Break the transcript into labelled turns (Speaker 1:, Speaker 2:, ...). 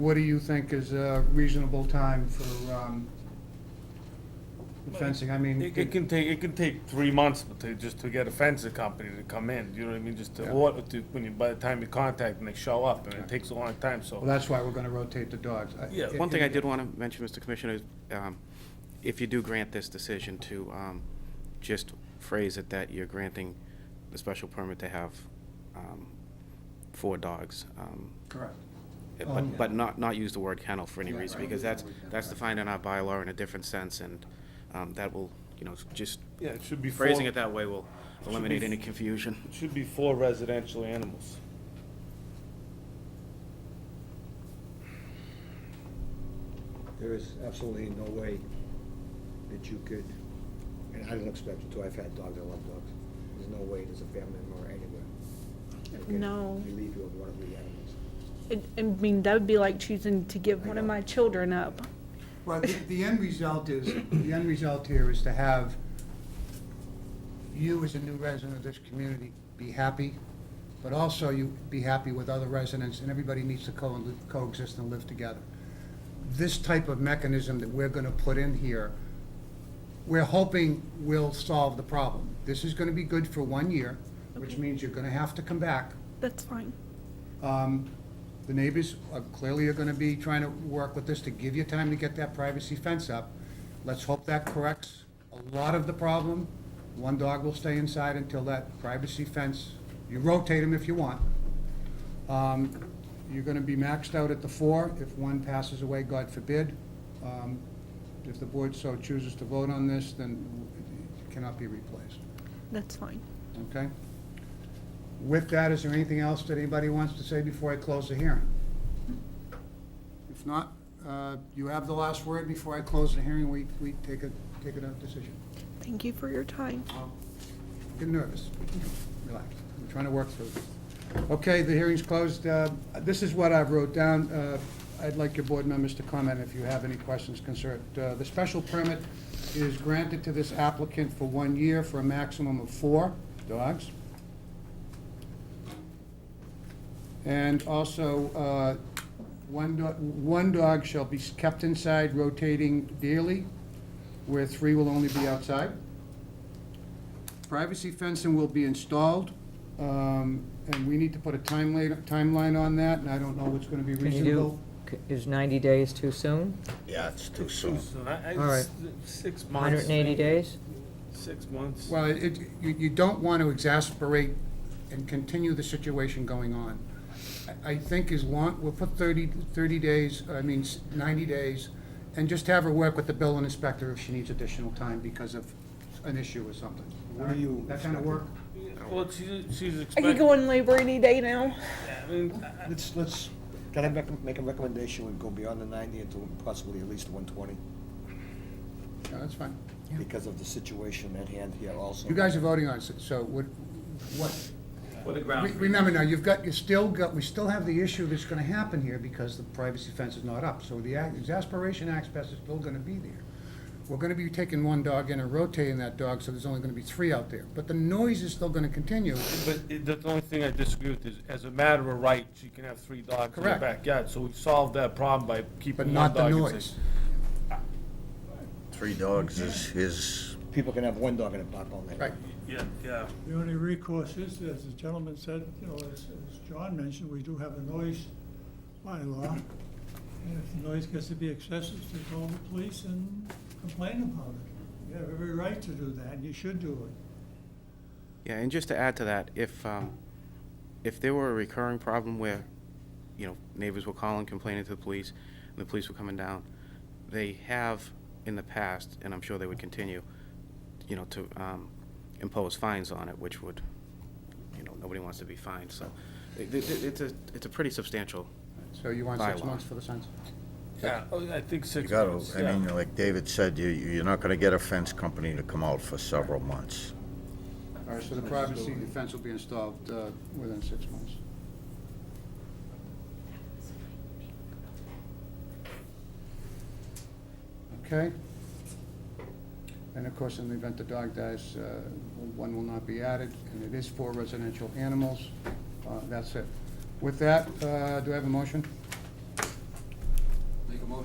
Speaker 1: What do you think is a reasonable time for um, the fencing? I mean,
Speaker 2: It, it can take, it can take three months to, just to get a fencing company to come in, you know what I mean, just to
Speaker 1: Yeah.
Speaker 2: order, to, when you, by the time you contact them, they show up, and
Speaker 1: Yeah.
Speaker 2: it takes a long time, so.
Speaker 1: well, that's why we're going to rotate the dogs. I-
Speaker 2: Yeah,
Speaker 3: One thing I did want to mention, Mr. Commissioner, is um, if you do grant this decision to um, just phrase it that you're granting the special permit to have um, four dogs. um,
Speaker 1: Correct. Um,
Speaker 3: But, but not, not use the word kennel for any
Speaker 1: Yeah,
Speaker 3: reason,
Speaker 1: right.
Speaker 3: because that's, that's defined in our bylaw in a different sense, and um, that will, you know, just
Speaker 2: Yeah, it should be four,
Speaker 3: phrasing it
Speaker 2: it
Speaker 3: that way will eliminate any confusion.
Speaker 2: should be four residential animals.
Speaker 4: There is absolutely no way that you could, and I didn't expect it to, I've had dogs, I love dogs. There's no way there's a family member anywhere. that can
Speaker 5: No.
Speaker 4: Relieve you of one of the animals.
Speaker 5: It- I mean, that would be like choosing to give
Speaker 4: I
Speaker 5: one of
Speaker 4: know.
Speaker 5: my children up.
Speaker 1: Well, the, the end result is, the end result here is to have you as a new resident of this community be happy, but also you be happy with other residents, and everybody needs to co- coexist and live together. This type of mechanism that we're gonna put in here, we're hoping will solve the problem. This is gonna be good for one year, which
Speaker 5: Okay.
Speaker 1: means you're gonna have to come back
Speaker 5: That's fine.
Speaker 1: um, The neighbors are clearly are gonna be trying to work with this to give you time to get that privacy fence up. Let's hope that corrects a lot of the problem. One dog will stay inside until that privacy fence, you rotate them if you want. Um, You're gonna be maxed out at the four, if one passes away, God forbid. Um, If the board so chooses to vote on this, then it cannot be replaced,
Speaker 5: That's fine.
Speaker 1: okay? With that, is there anything else that anybody wants to say before I close the hearing? If not, uh, you have the last word before I close the hearing, we, we take a, take a decision.
Speaker 5: Thank you for your time.
Speaker 1: Get nervous, relax, I'm trying to work through this. Okay, the hearing's closed, Uh, this is what I've wrote down, Uh, I'd like your board members to comment if you have any questions concerned. Uh, The special permit is granted to this applicant for one year for a maximum of four dogs. And also, uh, one dog, one dog shall be kept inside rotating daily, where three will only be outside. Privacy fencing will be installed, um, and we need to put a timeline, timeline on that, and I don't know what's gonna be
Speaker 6: Can you do,
Speaker 1: reasonable.
Speaker 6: c- is 90 days too soon?
Speaker 4: Yeah, it's too
Speaker 2: Too soon, I, I,
Speaker 6: All right.
Speaker 2: s- six months.
Speaker 6: 180 days?
Speaker 2: Six months.
Speaker 1: Well, it, you, you don't want to exasperate and continue the situation going on. I- I think as long, we'll put 30 30 days, I mean, s- ninety days, and just have her work with the building inspector if she needs additional time because of an issue or something.
Speaker 4: What do you
Speaker 1: That kind of work?
Speaker 2: Yeah, Well, she's, she's
Speaker 5: I could
Speaker 2: expecting,
Speaker 5: go in labor any day now.
Speaker 2: I mean, I-
Speaker 4: Let's, let's, can I make, make a recommendation, we go beyond the ninety into possibly at least one twenty?
Speaker 1: Yeah, that's fine.
Speaker 4: Because of the situation at hand here also.
Speaker 1: You guys are voting on it, so what, what,
Speaker 7: For the
Speaker 1: Re-
Speaker 7: ground.
Speaker 1: Remember now, you've got, you still got, we still have the issue that's gonna happen here because the privacy fence is not up, so the a- exasperation aspect is still gonna be there. We're gonna be taking one dog in and rotating that dog, so there's only gonna be three out there, but the noise is still gonna continue.
Speaker 2: but it- the only thing I disagree with is, as a matter of right, she can have three dogs in the
Speaker 1: Correct.
Speaker 2: backyard, so we solved that problem by
Speaker 1: But
Speaker 2: keeping one
Speaker 1: not the
Speaker 2: dog. inside.
Speaker 1: noise.
Speaker 8: Three dogs is, is,
Speaker 4: People can have one dog in a park all night.
Speaker 1: Right,
Speaker 2: Yeah, yeah.
Speaker 9: The only recourse is, as the gentleman said, you know, as, as John mentioned, we do have a noise bylaw. And if the noise gets to be excessive, to call the police and complain about it. You have every right to do that, and you should do it.
Speaker 3: Yeah, and just to add to that, if, um, if there were a recurring problem where, you know, neighbors were calling, complaining to the police, and the police were coming down, they have in the past, and I'm sure they would continue, you know, to, um, impose fines on it, which would, you know, nobody wants to be fined, so it, it, it's a, it's a pretty substantial,
Speaker 1: so you want six
Speaker 3: Bylaw.
Speaker 1: months for the fence?
Speaker 2: Yeah, oh, I think
Speaker 8: you
Speaker 2: six
Speaker 8: gotta,
Speaker 2: months,
Speaker 8: I
Speaker 2: yeah.
Speaker 8: mean, like David said, you, you're not gonna get a fence company to come out for several months.
Speaker 1: All right, so the privacy fence will be installed, uh, within six months. Okay? And of course, in the event the dog dies, uh, one will not be added, and it is for residential animals. Uh, That's it. With that, uh, do I have a motion?